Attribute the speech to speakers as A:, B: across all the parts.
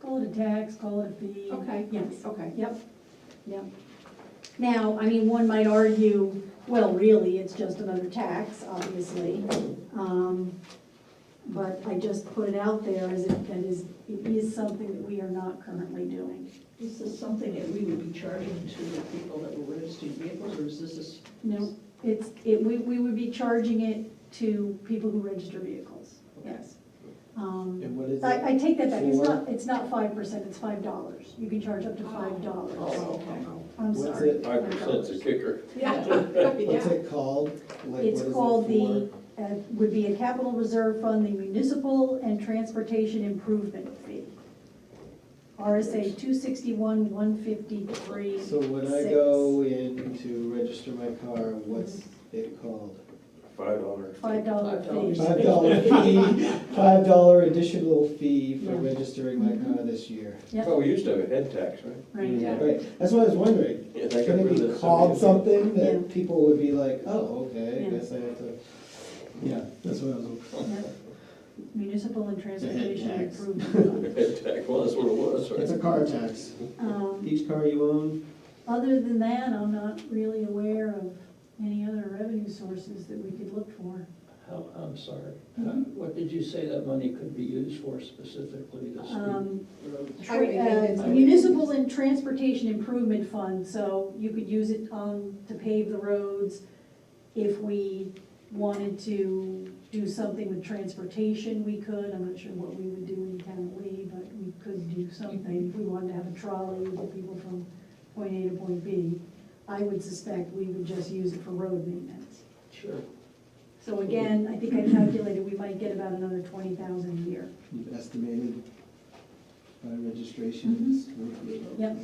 A: Call it a tax, call it a fee.
B: Okay.
A: Yes,
B: Okay.
A: yep, yep. Now, I mean, one might argue, well, really, it's just another tax, obviously. Um, But I just put it out there as it, that is, it is something that we are not currently doing.
C: Is this something that we would be charging to the people that were registering vehicles, or is this a s-
A: No, it's, it, we, we would be charging it to people who register vehicles, yes. Um,
D: And what is it?
A: I, I take that back, it's
D: For?
A: not, it's not five percent, it's five dollars. You can charge up to five
D: Oh,
A: dollars. I'm
D: What's
A: sorry.
D: it-
E: Five percent's a kicker.
B: Yeah.
D: What's
B: Yeah.
D: it called? Like, what
A: It's
D: is it
A: called the,
D: for?
A: uh, would be a capital reserve fund, the municipal and transportation improvement fee. RSA two sixty-one, one fifty-three,
D: So when I go in to register my car, what's it called?
E: Five dollars.
A: Five dollar fee.
C: $5.
D: Five dollar fee, five dollar additional fee for
A: Yeah.
D: registering my car this year.
A: Yep.
E: Well, we used to have a head tax, right?
A: Right,
B: Yeah.
D: Right, that's what I was wondering.
E: Yeah, they got
D: Can
E: rid of
D: it be
E: that
D: called
E: seventy.
D: something
A: Yeah.
D: that people would be like, oh, okay,
A: Yeah.
D: I guess I have to, yeah, that's what I was.
A: yep. Municipal and transportation
D: tax.
A: improvement fund.
E: Head tax, well, that's what it was,
D: It's a
E: right?
D: car tax.
A: Um,
D: Each car you own,
A: Other than that, I'm not really aware of any other revenue sources that we could look for.
F: How, I'm sorry, How-
A: Hmm?
F: what did you say that money could be used for specifically this year?
A: Um, tra-
B: Highway maintenance.
A: uh, Municipal and Transportation Improvement Fund, so you could use it um, to pave the roads. If we wanted to do something with transportation, we could. I'm not sure what we would do in town of Lee, but we could do something. If we wanted to have a trolley with people from point A to point B, I would suspect we would just use it for road maintenance.
F: Sure.
A: So again, I think I calculated we might get about another twenty thousand a year.
D: you've estimated by registrations.
A: Mm-hmm. Yep.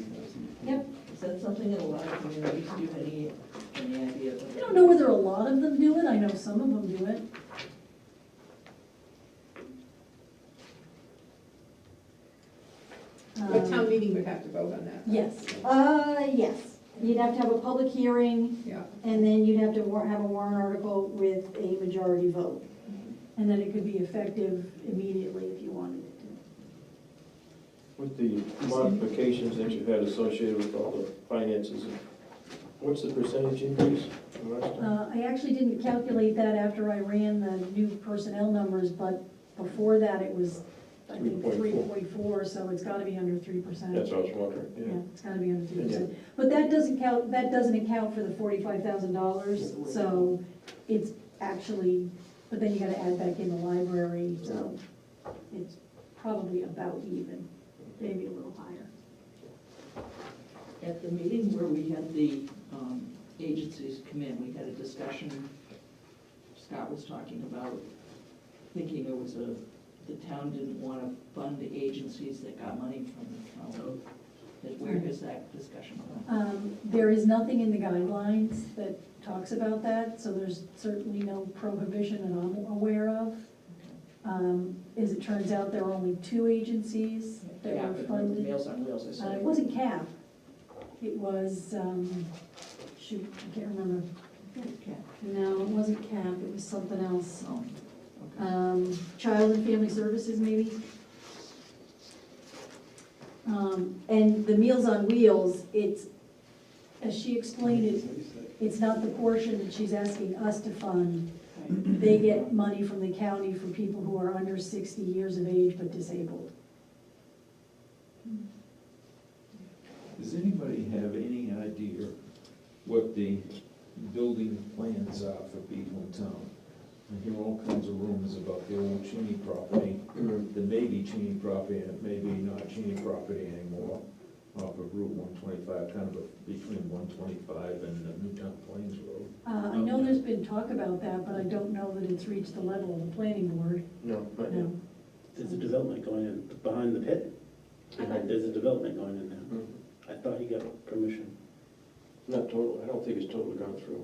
A: Yep.
C: is that something that a lot of communities do, any, any idea of?
A: I don't know whether a lot of them do it, I know some of them do it.
B: But town
A: Um,
B: meeting would have to vote on that.
A: Yes, uh, yes, you'd have to have a public hearing,
B: Yeah.
A: and then you'd have to war, have a warrant article with a majority vote. And then it could be effective immediately if you wanted it to.
E: With the modifications that you had associated with all the finances, what's the percentage increase from last time?
A: Uh, I actually didn't calculate that after I ran the new personnel numbers, but before that, it was, I think, three
E: 3.4.
A: point four, so it's gotta be under three percent.
E: That's what I was wondering,
A: Yeah,
E: yeah.
A: it's gotta be under three percent. But that doesn't count, that doesn't account for the forty-five thousand dollars, so it's actually, but then you gotta add back in the library, so it's probably about even, maybe a little higher.
C: At the meeting where we had the um, agencies come in, we had a discussion, Scott was talking about thinking it was a, the town didn't want to fund the agencies that got money from the
B: Oh.
C: county. That- Where is that discussion going?
A: Um, There is nothing in the guidelines that talks about that, so there's certainly no prohibition that I'm aware of. Um, As it turns out, there were only two agencies that
C: Yeah,
A: were
C: but
A: funded.
C: Meals on Wheels, I
A: Uh, It
C: said.
A: wasn't CAP, it was, um, shoot, I can't remember.
C: Okay.
A: No, it wasn't CAP, it was something else.
C: Oh, okay.
A: Um, Child and Family Services, maybe? Um, And the Meals on Wheels, it's, as she explained it, it's not the portion that she's asking us to fund. They get money from the county for people who are under sixty years of age but disabled.
G: Does anybody have any idea what the building plans are for people in town? I hear all kinds of rumors about the old Cheney property,
E: Mm-hmm.
G: the maybe Cheney property, and it may be not Cheney property anymore, off of Route one twenty-five, kind of a- between one twenty-five and uh, Newtown Plains Road.
A: Uh, I know there's been talk about that, but I don't know that it's reached the level of the planning board,
E: No, not yet.
A: no.
H: There's a development going in behind the pit.
E: Behind
H: There's a development going in there.
E: Mhm.
H: I thought he got permission.
E: Not total, I don't think it's totally gone through.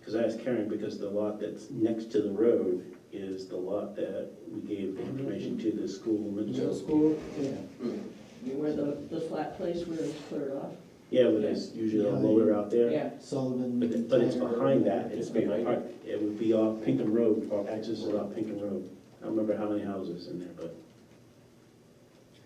H: Because I asked Karen, because the lot that's next to the road is the lot that we gave the information to the school.
D: Middle
H: Mitchell.
D: school, yeah.
E: Mm-hmm.
C: Where the, the flat place where it's cleared off?
H: Yeah, where there's usually a loader out there.
C: Yeah.
D: Sullivan.
H: But it- but it's
D: Tanner,
H: behind that,
D: whatever.
H: it's behind, it would be off Pinkham Road, off access is off Pinkham Road. I don't remember how many houses in there, but